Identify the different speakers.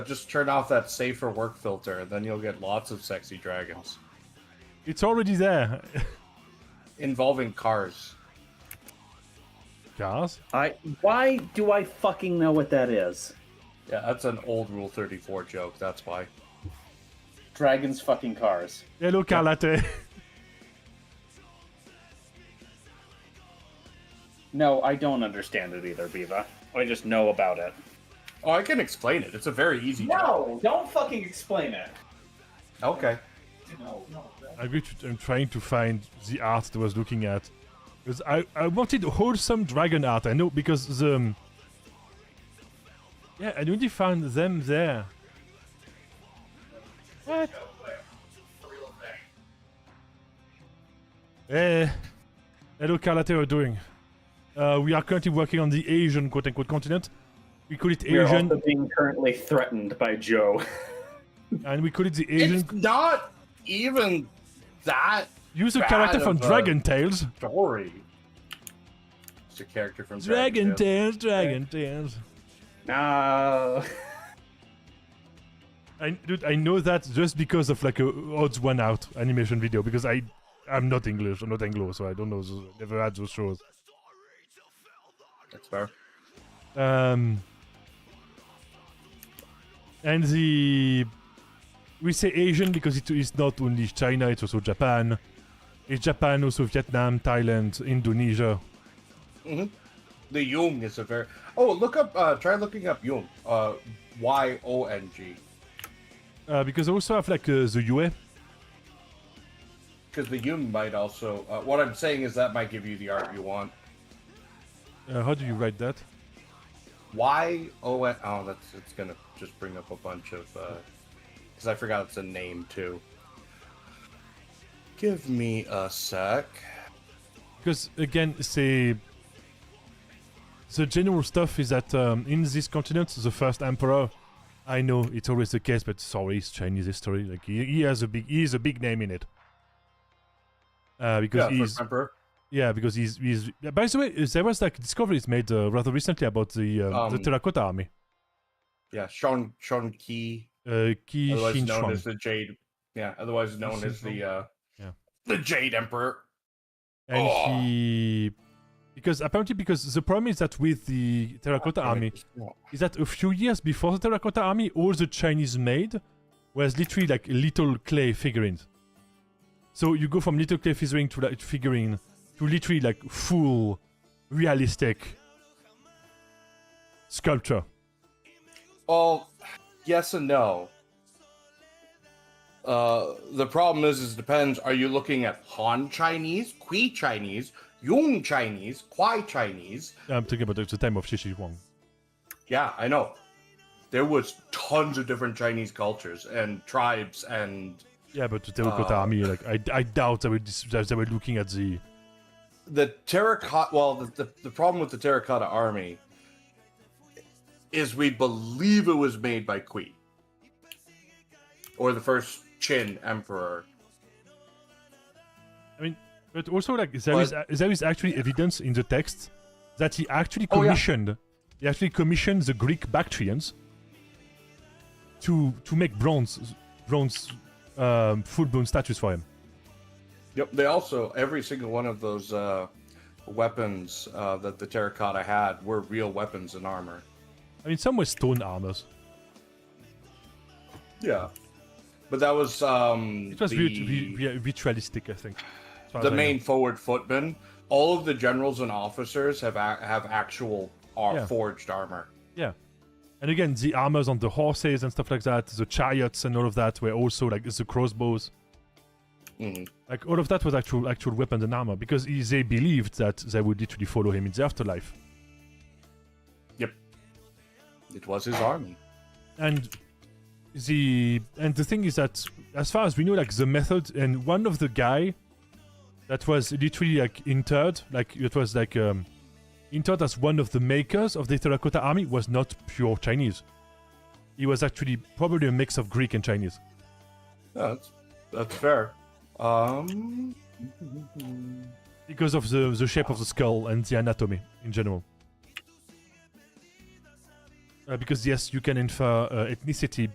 Speaker 1: Just turn off that safer work filter, and then you'll get lots of sexy dragons
Speaker 2: It's already there.
Speaker 1: involving cars.
Speaker 2: Cars?
Speaker 3: I why do I fucking know what that is?
Speaker 1: Yeah, that's an old Rule 34 joke. That's why.
Speaker 3: Dragons fucking cars.
Speaker 2: Hello, car latte.
Speaker 3: No, I don't understand it either, Biva. I just know about it.
Speaker 1: Oh, I can explain it. It's a very easy joke.
Speaker 3: No, don't fucking explain it.
Speaker 1: Okay.
Speaker 3: No, no.
Speaker 2: I'm, going to- I'm trying to find the art that I was looking at. Because I, I wanted wholesome dragon art. I know, because the. um, Yeah, I only found them there. What? Eh. Hello, Carlate, how are you doing? Uh, we are currently working on the Asian quote unquote continent. We call it
Speaker 3: We are
Speaker 2: Asian,
Speaker 3: also being currently threatened by Joe.
Speaker 2: and we call it the Asian.
Speaker 1: It's not even that
Speaker 2: Use a
Speaker 1: bad
Speaker 2: character from
Speaker 1: of a-
Speaker 2: Dragon Tales.
Speaker 1: story. It's a character from
Speaker 2: Dragon
Speaker 1: Dragon Tale.
Speaker 2: Tales, Dragon Tales.
Speaker 3: no.
Speaker 2: I, dude, I know that just because of like a odds one out animation video because I I'm not English, I'm not Anglo, so I don't know, those, never had those shows.
Speaker 1: That's fair.
Speaker 2: Um, and the we say Asian because it is not only China, it's also Japan. It's Japan, also Vietnam, Thailand, Indonesia.
Speaker 1: The Jung is a very. Oh, look up. Uh, try looking up Jung. Uh, y O N G.
Speaker 2: Uh, because I also have like uh, the UA.
Speaker 1: Because the Jung might also. Uh, what I'm saying is that might give you the art you want.
Speaker 2: Uh, how do you write that?
Speaker 1: Y O N. Oh, that's. It's gonna just bring up a bunch of. Because I forgot it's a name too. Give me a sec.
Speaker 2: Because again, say the general stuff is that um, in this continent, the first emperor. I know it's always the case, but sorry, it's Chinese history. Like he, he has a big, he is a big name in it. Uh,
Speaker 1: Yeah,
Speaker 2: because he's
Speaker 1: first emperor.
Speaker 2: yeah, because he's he's. yeah, By the way, there was like discoveries made uh, rather recently about the um, the
Speaker 1: Um,
Speaker 2: terracotta army.
Speaker 1: Yeah, Sean Sean Ki,
Speaker 2: Uh, Qi
Speaker 1: otherwise
Speaker 2: Xin
Speaker 1: known
Speaker 2: Shuang.
Speaker 1: as the Jade. Yeah, otherwise known as the. Uh,
Speaker 2: Yeah.
Speaker 1: The Jade Emperor.
Speaker 2: and
Speaker 1: Oh.
Speaker 2: he because apparently because the problem is that with the terracotta army is that a few years before the terracotta army all the chinese made was literally like little clay figurines so you go from little clay figurine to like figurine to literally like full realistic sculpture
Speaker 1: Well, yes and no. Uh, the problem is, is depends. Are you looking at Han Chinese, Kui Chinese, Yung Chinese, Kwai Chinese?
Speaker 2: i'm talking about the time of shishi wang
Speaker 1: Yeah, I know. There was tons of different Chinese cultures and tribes, and
Speaker 2: yeah but the terracotta
Speaker 1: Ah.
Speaker 2: army like i, I doubt they were, dis- that they were looking at the
Speaker 1: the terracotta. Well, the, the the problem with the terracotta army is we believe it was made by Kui or the first Qin emperor.
Speaker 2: I mean, but also like there
Speaker 1: But-
Speaker 2: is there is actually evidence in the text that he actually
Speaker 1: Oh, yeah.
Speaker 2: commissioned he actually commissioned the Greek Bactrians to to make bronze bronze um, full bronze statues for him.
Speaker 1: Yep. They also every single one of those uh, weapons uh, that the terracotta had were real weapons and armor.
Speaker 2: I mean, some were stone armors.
Speaker 1: Yeah. But that was um,
Speaker 2: It was
Speaker 1: the,
Speaker 2: vit- vi- vi- ritualistic, I think. as far
Speaker 1: the
Speaker 2: as I know.
Speaker 1: main forward footman. All of the generals and officers have a- have actual ar-
Speaker 2: Yeah.
Speaker 1: forged armor.
Speaker 2: Yeah. And again, the armors on the horses and stuff like that, the chariots and all of that were also like the crossbows.
Speaker 1: Mhm.
Speaker 2: Like all of that was actual actual weapons and armor because he- they believed that they would literally follow him in the afterlife.
Speaker 1: Yep. It was his army.
Speaker 2: And the and the thing is that as far as we know, like the method and one of the guy that was literally like interred, like it was like um interred as one of the makers of the terracotta army was not pure Chinese. He was actually probably a mix of Greek and Chinese.
Speaker 1: Yeah, that's that's fair. Um,
Speaker 2: because of the, the shape of the skull and the anatomy in general. uh, because yes, you can infer uh, ethnicity